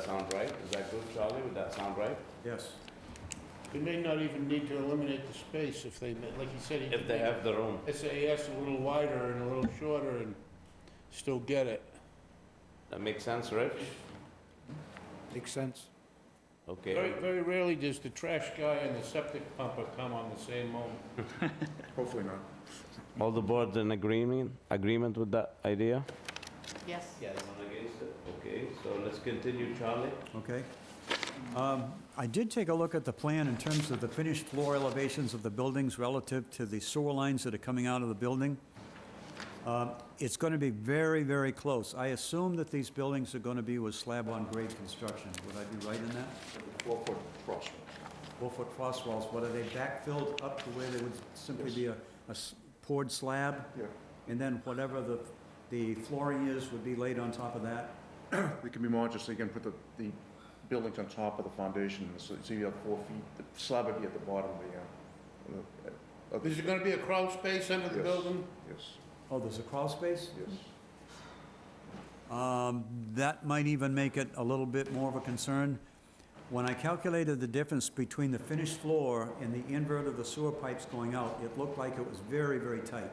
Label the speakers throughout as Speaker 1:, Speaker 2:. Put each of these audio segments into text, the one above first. Speaker 1: sound right? Is that good, Charlie? Would that sound right?
Speaker 2: Yes.
Speaker 3: They may not even need to eliminate the space if they, ma- like you said, he
Speaker 1: If
Speaker 3: could
Speaker 1: they
Speaker 3: make
Speaker 1: have the room.
Speaker 3: SAS a little wider and a little shorter and still get it.
Speaker 1: That makes sense, right?
Speaker 2: Makes sense.
Speaker 3: Very,
Speaker 1: Okay.
Speaker 3: very rarely does the trash guy and the septic pumper come on the same moment.
Speaker 2: Hopefully not.
Speaker 1: All the boards in agreement, agreement with that idea?
Speaker 4: Yes.
Speaker 1: Anyone against it? Okay, so let's continue, Charlie.
Speaker 2: Okay. Um, I did take a look at the plan in terms of the finished floor elevations of the buildings relative to the sewer lines that are coming out of the building. Uh, It's going to be very, very close. I assume that these buildings are going to be with slab-on-grade construction. Would I be right in that?
Speaker 5: Four-foot crosswalk.
Speaker 2: Four-foot cross walls, what are they backfilled up to where they would simply be a a s- poured slab?
Speaker 5: Yeah,
Speaker 2: And then whatever the the flooring is would be laid on top of that?
Speaker 5: it can be modular, so you can put the, the buildings on top of the foundation, so so you have four feet, the slab would be at the bottom of the, uh, of the,
Speaker 3: Is
Speaker 5: of the-
Speaker 3: there gonna be a crawl space under the
Speaker 5: Yes.
Speaker 3: building?
Speaker 5: yes,
Speaker 2: Oh, there's a crawl space?
Speaker 5: yes.
Speaker 2: Um, That might even make it a little bit more of a concern. When I calculated the difference between the finished floor and the invert of the sewer pipes going out, it looked like it was very, very tight.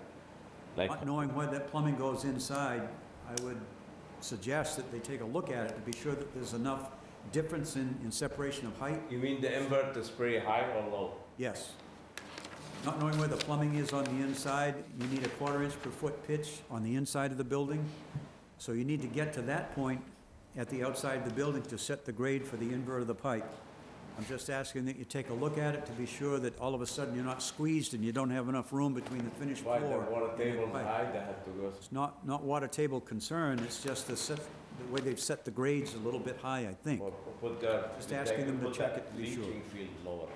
Speaker 1: Like,
Speaker 2: Not knowing where that plumbing goes inside, I would suggest that they take a look at it to be sure that there's enough difference in, in separation of height.
Speaker 1: you mean the invert is pretty high or low?
Speaker 2: Yes. Not knowing where the plumbing is on the inside, you need a quarter inch per foot pitch on the inside of the building. So you need to get to that point at the outside of the building to set the grade for the invert of the pipe. I'm just asking that you take a look at it to be sure that all of a sudden you're not squeezed and you don't have enough room between the finished floor.
Speaker 1: Why the water
Speaker 2: and the
Speaker 1: table is
Speaker 2: pipe.
Speaker 1: high, they have to go.
Speaker 2: It's not, not water table concern, it's just the set, the way they've set the grades a little bit high, I think.
Speaker 1: Or put the.
Speaker 2: Just
Speaker 1: they
Speaker 2: asking
Speaker 1: can
Speaker 2: them to
Speaker 1: put
Speaker 2: check
Speaker 1: that
Speaker 2: it to be sure.
Speaker 1: Leaching field lower.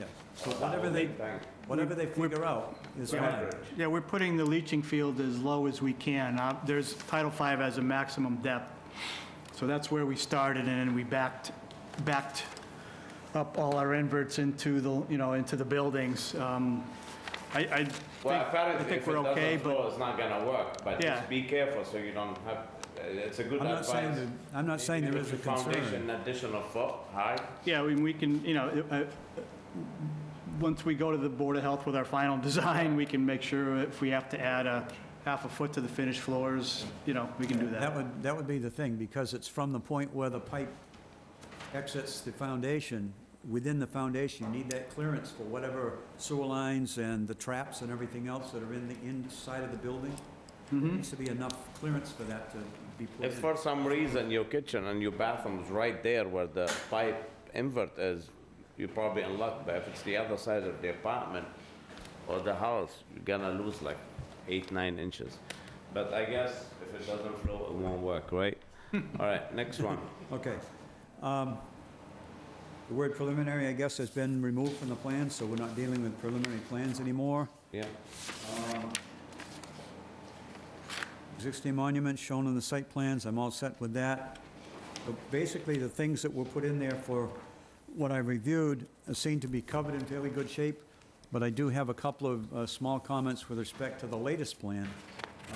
Speaker 2: Yeah. So
Speaker 1: That
Speaker 2: whatever
Speaker 1: would
Speaker 2: they,
Speaker 1: be fine.
Speaker 2: whatever they figure out is fine.
Speaker 1: Average.
Speaker 6: Yeah, we're putting the leaching field as low as we can. Uh, There's, Title V has a maximum depth, so that's where we started, and then we backed, backed up all our inverts into the, you know, into the buildings. Um, I, I think,
Speaker 1: Well,
Speaker 6: I
Speaker 1: apparently,
Speaker 6: think
Speaker 1: if it
Speaker 6: we're okay,
Speaker 1: doesn't flow,
Speaker 6: but,
Speaker 1: it's not gonna work, but
Speaker 6: Yeah.
Speaker 1: just be careful so you don't have, uh, it's a good
Speaker 2: I'm not
Speaker 1: advice.
Speaker 2: saying, that- I'm not saying there
Speaker 1: Even
Speaker 2: is a
Speaker 1: if your
Speaker 2: concern.
Speaker 1: Foundation additional foot high,
Speaker 6: yeah, we we can, you know, uh, uh, once we go to the Board of Health with our final design, we can make sure if we have to add a half a foot to the finished floors, you know, we can do
Speaker 2: That would, that would be the thing, because it's from the point where the pipe exits the foundation, within the foundation, you need that clearance for whatever sewer lines and the traps and everything else that are in the inside of the building. There needs to be enough clearance for that to be put
Speaker 1: if
Speaker 2: in.
Speaker 1: for some reason your kitchen and your bathroom's right there where the pipe invert is, you're probably in luck, but if it's the other side of the apartment or the house, you're gonna lose like eight, nine inches. But I guess if it doesn't flow, it won't work, right? All right, next one.
Speaker 2: Okay. Um, The word preliminary, I guess, has been removed from the plan, so we're not dealing with preliminary plans anymore.
Speaker 1: Yeah,
Speaker 2: Existing monuments shown on the site plans, I'm all set with that. But Basically, the things that were put in there for what I reviewed seem to be covered in fairly good shape, but I do have a couple of uh, small comments with respect to the latest plan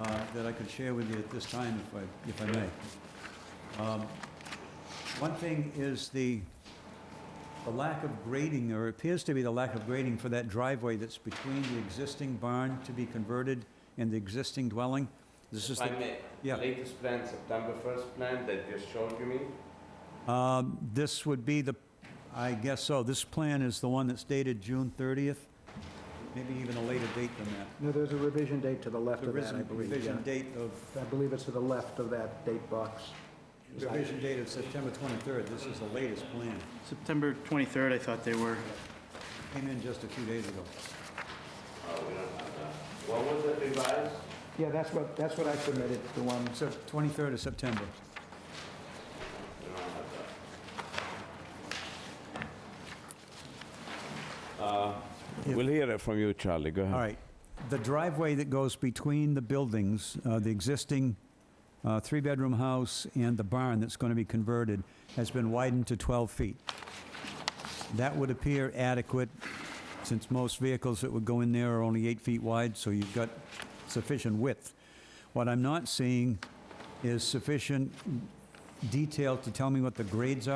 Speaker 2: uh, that I could share with you at this time, if I, if I may. Um, One thing is the, the lack of grading, or appears to be the lack of grading for that driveway that's between the existing barn to be converted and the existing dwelling. This is
Speaker 1: if I
Speaker 2: the
Speaker 1: may,
Speaker 2: yeah.
Speaker 1: latest plan, September first plan that just showed you me, Oh,
Speaker 2: Um, This would be the, I guess so, this plan is the one that's dated June 30th, maybe even a later date than that.
Speaker 7: No, there's a revision date to the left of
Speaker 2: There is
Speaker 7: that, I
Speaker 2: a
Speaker 7: believe,
Speaker 2: revision
Speaker 7: yeah.
Speaker 2: date of,
Speaker 7: I believe it's to the left of that date box.
Speaker 2: revision date of September 23rd, this is the latest plan.
Speaker 6: September 23rd, I thought they were.
Speaker 2: Came in just a few days ago.
Speaker 1: what was it revised?
Speaker 7: Yeah, that's what, that's what I submitted, the one,
Speaker 2: So 23rd of September.
Speaker 1: We'll hear it from you, Charlie, go ahead.
Speaker 2: All right. The driveway that goes between the buildings, uh, the existing uh, three-bedroom house and the barn that's going to be converted, has been widened to 12 feet. That would appear adequate, since most vehicles that would go in there are only eight feet wide, so you've got sufficient width. What I'm not seeing is sufficient detail to tell me what the grades are.